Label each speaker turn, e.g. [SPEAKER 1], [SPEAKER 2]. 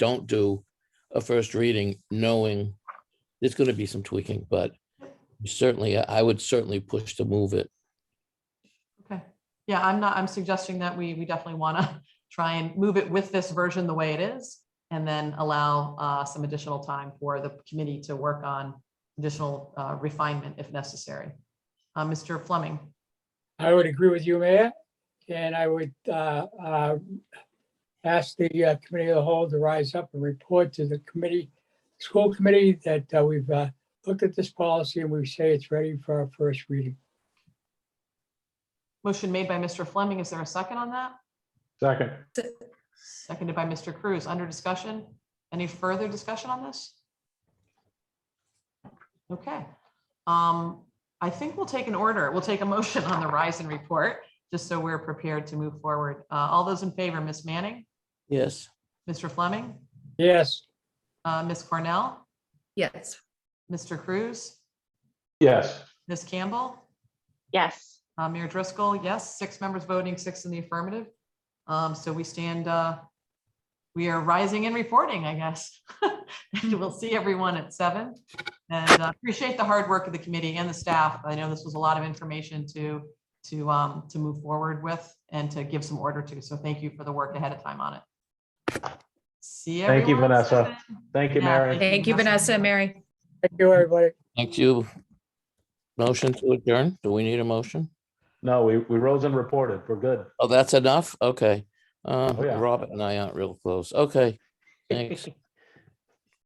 [SPEAKER 1] don't do a first reading, knowing there's going to be some tweaking, but certainly, I I would certainly push to move it.
[SPEAKER 2] Okay, yeah, I'm not, I'm suggesting that we, we definitely want to try and move it with this version the way it is. And then allow uh, some additional time for the committee to work on additional uh, refinement if necessary. Uh, Mr. Fleming,
[SPEAKER 3] I would agree with you, Mayor, and I would uh, uh, ask the uh, committee of the whole to rise up and report to the committee, school committee, that uh, we've uh, looked at this policy and we say it's ready for our first reading.
[SPEAKER 2] motion made by Mr. Fleming, is there a second on that?
[SPEAKER 4] Second,
[SPEAKER 2] Seconded by Mr. Cruz, under discussion. Any further discussion on this? Okay. Um, I think we'll take an order. We'll take a motion on the Ryzen report, just so we're prepared to move forward. Uh, all those in favor, Ms. Manning,
[SPEAKER 1] Yes,
[SPEAKER 2] Mr. Fleming,
[SPEAKER 3] Yes,
[SPEAKER 2] uh, Ms. Cornell,
[SPEAKER 5] Yes,
[SPEAKER 2] Mr. Cruz,
[SPEAKER 4] yes,
[SPEAKER 2] Ms. Campbell,
[SPEAKER 6] Yes.
[SPEAKER 2] uh, Mayor Driscoll, yes, six members voting, six in the affirmative. Um, so we stand, uh, we are rising and reporting, I guess. And We'll see everyone at seven. And uh, appreciate the hard work of the committee and the staff. I know this was a lot of information to, to, um, to move forward with and to give some order to. So thank you for the work ahead of time on it. See
[SPEAKER 4] Thank you,
[SPEAKER 2] everyone at
[SPEAKER 4] Vanessa.
[SPEAKER 2] 7.
[SPEAKER 4] thank you,
[SPEAKER 2] Yeah,
[SPEAKER 4] Mary.
[SPEAKER 5] thank you, Vanessa and Mary.
[SPEAKER 3] thank you, everybody.
[SPEAKER 1] thank you. Motion to adjourn. Do we need a motion?
[SPEAKER 4] No, we, we rose and reported, we're good.
[SPEAKER 1] Oh, that's enough? Okay. Uh,
[SPEAKER 4] Oh, yeah.
[SPEAKER 1] Robert and I aren't real close. Okay. Thanks.